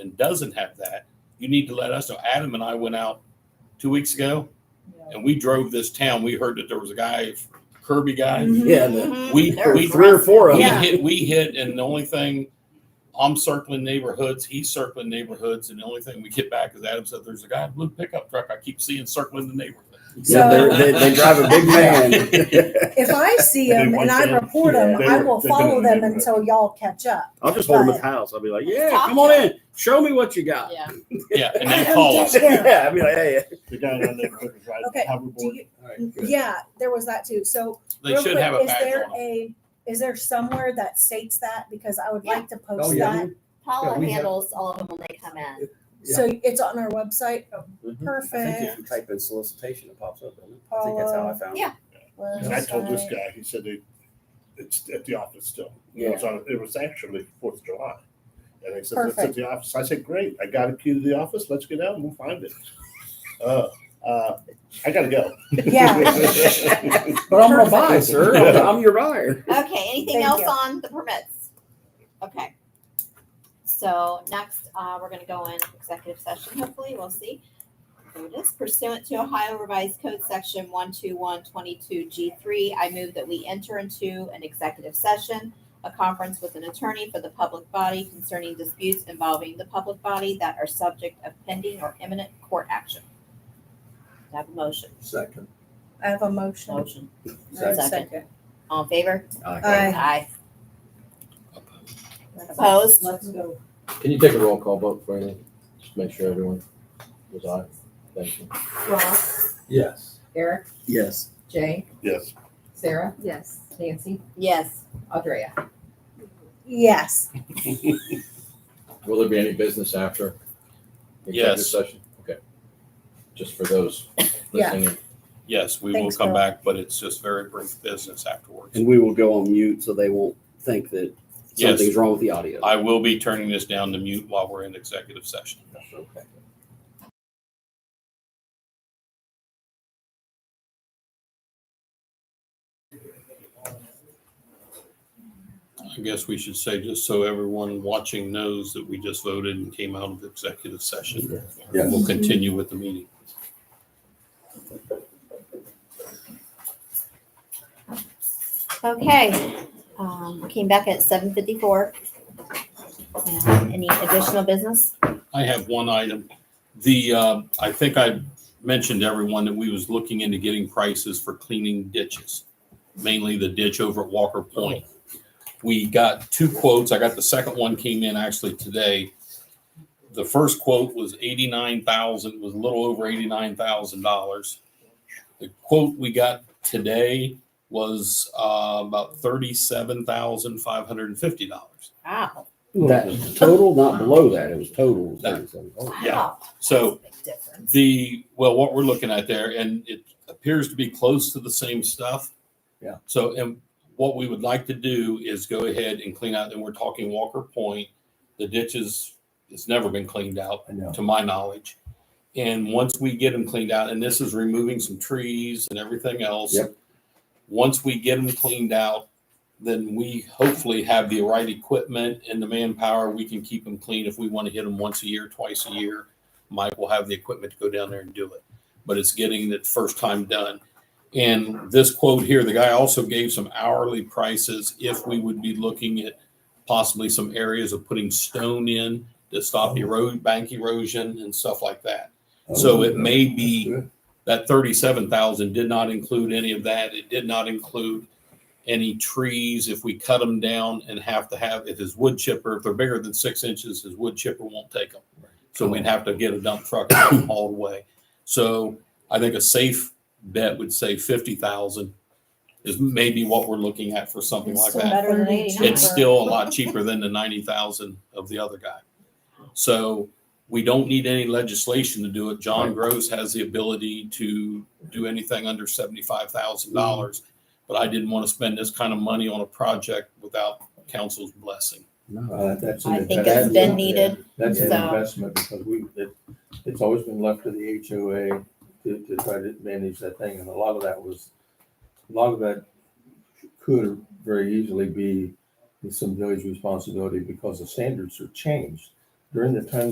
and doesn't have that, you need to let us know. Adam and I went out two weeks ago and we drove this town. We heard that there was a guy, Kirby guy. Mhm. Yeah, the- We, there were we, three or four of we them. Yeah. hit, we hit, and the only thing, I'm circling neighborhoods, he's circling neighborhoods, and the only thing we get back is Adam said, there's a guy in a blue pickup truck I keep seeing circling the neighborhood. Yeah, So- uh, they're- they, they drive a big van. If I see They them and want I them. report them, Yeah, I they- will they've been follow in the them neighborhood. until y'all catch up. I'll just hold them at the house. I'll be like, yeah, come on in. Show me what you Uh, got. Yeah. Yeah, and I they don't call get us. it. Yeah. Yeah, I'll be like, hey. The guy down there was riding Okay, a Do hoverboard. you, all right, good. yeah, there was that too. So They real should quick, have a is badge there on them. a is there somewhere that states that because I would Yeah. like to post Oh, yeah. that Yeah, Paula we have- handles all of them when they come in. so it's on our website. Oh, Mhm. I think if Perfect. you type in solicitation, it pops up. doesn't it? I think that's how I found it. Yeah. And I told this Website. guy, he said they, it's at the office still. Yeah. It was on, it was actually Fourth of July. And he said, it's at Perfect. the office. I said, great, I got a key to the office, let's get out and we'll find it. Uh, uh, I gotta go. Yeah. But I'm gonna buy, sir. I'm, I'm your buyer. Okay, anything Thank else you. on the permits? Okay. So next, uh, we're gonna go in executive session, hopefully, we'll see. There it is pursuant to Ohio Revised Code Section one two one twenty-two G three, I move that we enter into an executive session, a conference with an attorney for the public body concerning disputes involving the public body that are subject of pending or imminent court action. Do I Have a motion, Second. I have a motion. motion, Second. Second. all in favor? Aye. Aye. Opposed? Let's go. Can you take a roll call vote for me? Just make sure everyone was aye. Thank you. Ross, Yes. Eric, Yes. Jay, Yes. Sarah. Yes. Nancy, Yes. Andrea. Yes. Will there be any business after? the executive Yes. Session? Okay. Just for those Yeah. listening. in. Yes, we will Thanks, come Bill. back, but it's just very brief business afterwards. And we will go on mute so they won't think that Yes. something's wrong with the audio. I will be turning this down to mute while we're in executive session. Okay. I guess we should say, just so everyone watching knows that we just voted and came out of executive session. Yeah. We'll continue with the meeting. Okay, um, we came back at seven fifty-four. Any additional business? I have one item. The, uh, I think I mentioned to everyone that we was looking into getting prices for cleaning ditches, mainly the ditch over at Walker Point. We got two quotes. I got the second one came in actually today. The first quote was eighty-nine thousand, was a little over eighty-nine thousand dollars. The quote we got today was, uh, about thirty-seven thousand, five hundred and fifty dollars. Wow. That was total, not below that. It was total. That- 37. Oh, Yeah. Wow. So That's a big difference. The, well, what we're looking at there, and it appears to be close to the same stuff. Yeah. So, and what we would like to do is go ahead and clean out, and we're talking Walker Point. The ditches, it's never been cleaned out, I know. to my knowledge. And once we get them cleaned out, and this is removing some trees and everything else. Yep. Once we get them cleaned out, then we hopefully have the right equipment and the manpower. We can keep them clean if we want to hit them once a year, twice a year. Mike will have the equipment to go down there and do it. But it's getting that first time done. And this quote here, the guy also gave some hourly prices if we would be looking at possibly some areas of putting stone in to stop erode, bank erosion and stuff like that. So it may be that thirty-seven thousand did not include any of that. It did not include any trees. If we cut them down and have to have, if his wood chipper, if they're bigger than six inches, his wood chipper won't take them. So we'd have to get a dump truck and haul 'em all the way. So I think a safe bet would say fifty thousand is maybe what we're looking at for something like that. better than It's 89. still a lot cheaper than the ninety thousand of the other guy. So we don't need any legislation to do it. John Gross has the ability to do anything under seventy-five thousand dollars. But I didn't want to spend this kind of money on a project without council's blessing. No, Uh, that's. I think it's been needed. That's an so- investment because we, it's always been left to the HOA to, to try to manage that thing. And a lot of that was, a lot of that could very easily be some village responsibility because the standards are changed. during the time